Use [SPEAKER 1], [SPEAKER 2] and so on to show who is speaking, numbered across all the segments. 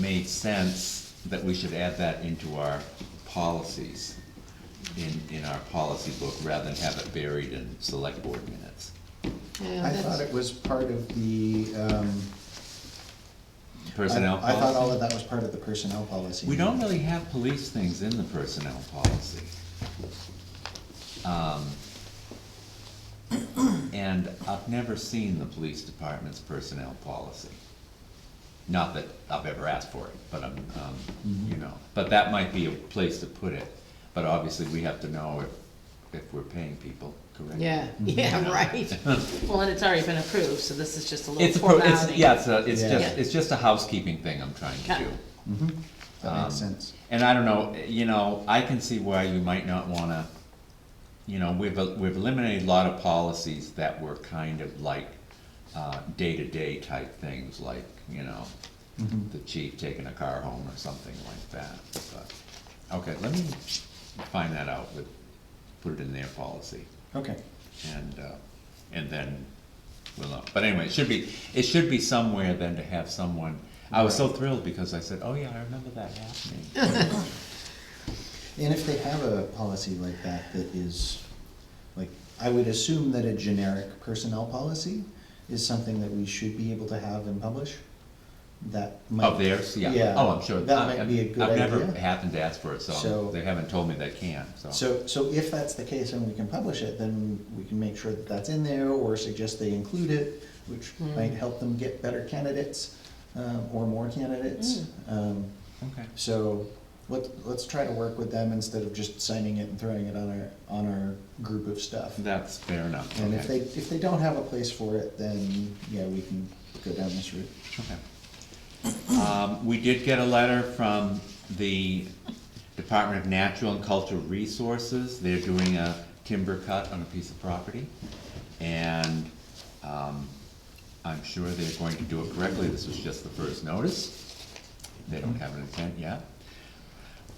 [SPEAKER 1] made sense that we should add that into our policies, in, in our policy book, rather than have it buried in select board minutes.
[SPEAKER 2] Yeah,
[SPEAKER 3] I
[SPEAKER 2] that's-
[SPEAKER 3] thought it was part of the, um, I I
[SPEAKER 1] Personnel policy?
[SPEAKER 3] thought all of that was part of the personnel policy.
[SPEAKER 1] We don't really have police things in the personnel policy. Um, And I've never seen the police department's personnel policy. Not that I've ever asked for it, but I'm, um, you know, but that might be a place to put it. But obviously, we have to know if, if we're paying people correctly.
[SPEAKER 2] Yeah, yeah, right. Well, and it's already been approved, so this is just a
[SPEAKER 1] It's, a
[SPEAKER 2] little
[SPEAKER 1] pro- it's,
[SPEAKER 2] formality.
[SPEAKER 1] yeah, it's, a- it's
[SPEAKER 3] Yeah.
[SPEAKER 1] just, it's just a housekeeping thing I'm trying to
[SPEAKER 2] Yeah.
[SPEAKER 1] do.
[SPEAKER 3] Mhm, That
[SPEAKER 1] Um,
[SPEAKER 3] makes sense.
[SPEAKER 1] And I don't know, you know, I can see why you might not wanna, you know, we've, we've eliminated a lot of policies that were kind of like, uh, day-to-day type things, like, you know,
[SPEAKER 3] Mhm.
[SPEAKER 1] the chief taking a car home or something like that, but, okay, let me find that out with, put it in their policy,
[SPEAKER 3] Okay,
[SPEAKER 1] and, uh, and then we'll know. But anyway, it should be, it should be somewhere then to have someone, I was so thrilled because I said, oh yeah, I remember that happening.
[SPEAKER 3] and if they have a policy like that that is, like, I would assume that a generic personnel policy is something that we should be able to have and publish, that might.
[SPEAKER 1] Of theirs, yeah, oh, I'm sure.
[SPEAKER 3] That
[SPEAKER 1] I-
[SPEAKER 3] might be a good
[SPEAKER 1] I've
[SPEAKER 3] idea.
[SPEAKER 1] never happened to ask for it, so
[SPEAKER 3] So-
[SPEAKER 1] they haven't told me they can, so.
[SPEAKER 3] So, so if that's the case and we can publish it, then we can make sure that that's in there or suggest they include it, which might help them get better candidates, um, or more candidates. Um,
[SPEAKER 1] Okay.
[SPEAKER 3] so let, let's try to work with them instead of just signing it and throwing it on our, on our group of stuff.
[SPEAKER 1] That's fair enough,
[SPEAKER 3] And if they,
[SPEAKER 1] okay.
[SPEAKER 3] if they don't have a place for it, then, yeah, we can go down this route.
[SPEAKER 1] Okay. Um, we did get a letter from the Department of Natural and Cultural Resources. They're doing a timber cut on a piece of property, and, um, I'm sure they're going to do it correctly. This was just the first notice. They don't have an intent yet.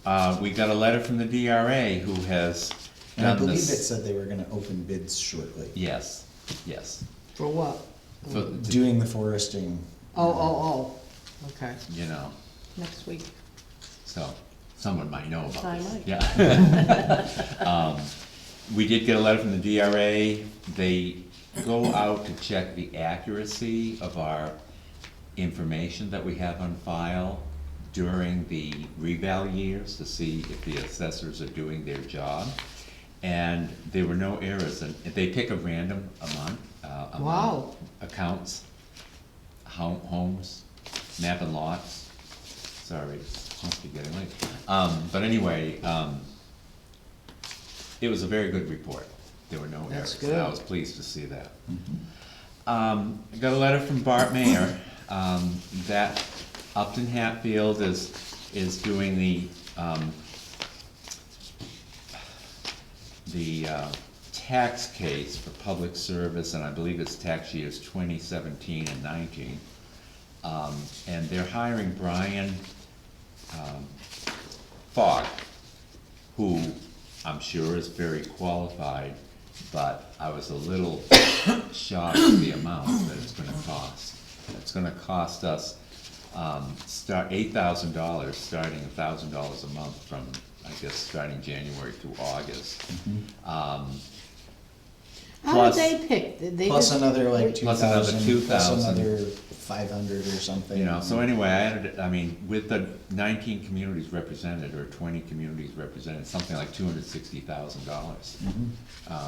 [SPEAKER 1] Uh, we got a letter from the DRA who has
[SPEAKER 3] And I
[SPEAKER 1] done
[SPEAKER 3] believe it
[SPEAKER 1] this.
[SPEAKER 3] said they were gonna open bids shortly,
[SPEAKER 1] Yes, yes.
[SPEAKER 2] For what?
[SPEAKER 1] So,
[SPEAKER 3] doing the foresting.
[SPEAKER 2] Oh, oh, oh, okay,
[SPEAKER 1] you know,
[SPEAKER 2] next week.
[SPEAKER 1] so someone might know about this.
[SPEAKER 2] I might.
[SPEAKER 1] Yeah. Um, We did get a letter from the DRA. They go out to check the accuracy of our information that we have on file during the reval years to see if the assessors are doing their job. And there were no errors, and they pick a random amount, uh, amount
[SPEAKER 2] Wow.
[SPEAKER 1] accounts, home, homes, map and lots. Sorry, it must be getting late. Um, but anyway, um, it was a very good report. There were no errors.
[SPEAKER 2] That's
[SPEAKER 1] and I
[SPEAKER 2] good. Mm-hmm.
[SPEAKER 1] was pleased to see that. Um, I got a letter from Bart Mayer, um, that Upton Hatfield is, is doing the, um, the, uh, tax case for public service, and I believe it's tax years twenty seventeen and nineteen. Um, and they're hiring Brian, um, Fogg, who I'm sure is very qualified, but I was a little shocked at the amount that it's gonna cost. It's gonna cost us, um, start, eight thousand dollars, starting a thousand dollars a month from, I guess, starting January through August. Um,
[SPEAKER 2] How did
[SPEAKER 1] Plus-
[SPEAKER 2] they pick? Did they
[SPEAKER 3] Plus
[SPEAKER 2] just-
[SPEAKER 3] another like two
[SPEAKER 1] Plus another
[SPEAKER 3] thousand, plus
[SPEAKER 1] 2,000.
[SPEAKER 3] another five hundred or something.
[SPEAKER 1] You know, so anyway, I added, I mean, with the nineteen communities represented, or twenty communities represented, something like two hundred sixty thousand dollars.
[SPEAKER 3] Mm-hmm.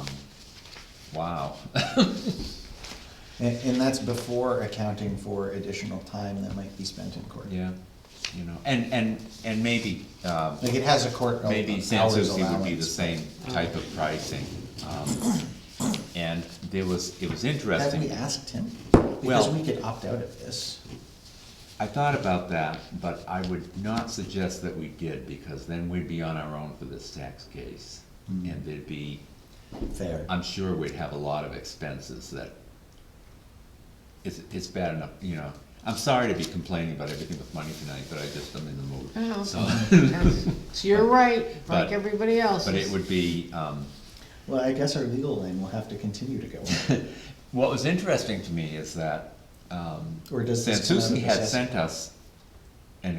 [SPEAKER 1] Wow,
[SPEAKER 3] And, and that's before accounting for additional time that might be spent in court.
[SPEAKER 1] yeah, you know, and, and, and maybe, um,
[SPEAKER 3] Like it has a court hours
[SPEAKER 1] maybe San
[SPEAKER 3] allowance.
[SPEAKER 1] Souci would be the same type of pricing. Um, And there was, it was
[SPEAKER 3] Have
[SPEAKER 1] interesting.
[SPEAKER 3] we asked him? Because
[SPEAKER 1] Well-
[SPEAKER 3] we could opt out of this.
[SPEAKER 1] I thought about that, but I would not suggest that we did, because then we'd be on our own for this tax case.
[SPEAKER 3] Mm.
[SPEAKER 1] And there'd be,
[SPEAKER 3] Fair.
[SPEAKER 1] I'm sure we'd have a lot of expenses that, it's, it's bad enough, you know. I'm sorry to be complaining about everything with money tonight, but I just, I'm in the mood.
[SPEAKER 2] Oh.
[SPEAKER 1] So,
[SPEAKER 2] So you're right, like
[SPEAKER 1] But-
[SPEAKER 2] everybody else.
[SPEAKER 1] but it would be, um,
[SPEAKER 3] Well, I guess our legal lane will have to continue to go on.
[SPEAKER 1] what was interesting to me is that, um,
[SPEAKER 3] Or does this come out of
[SPEAKER 1] Sansucci had
[SPEAKER 3] assessment?
[SPEAKER 1] sent us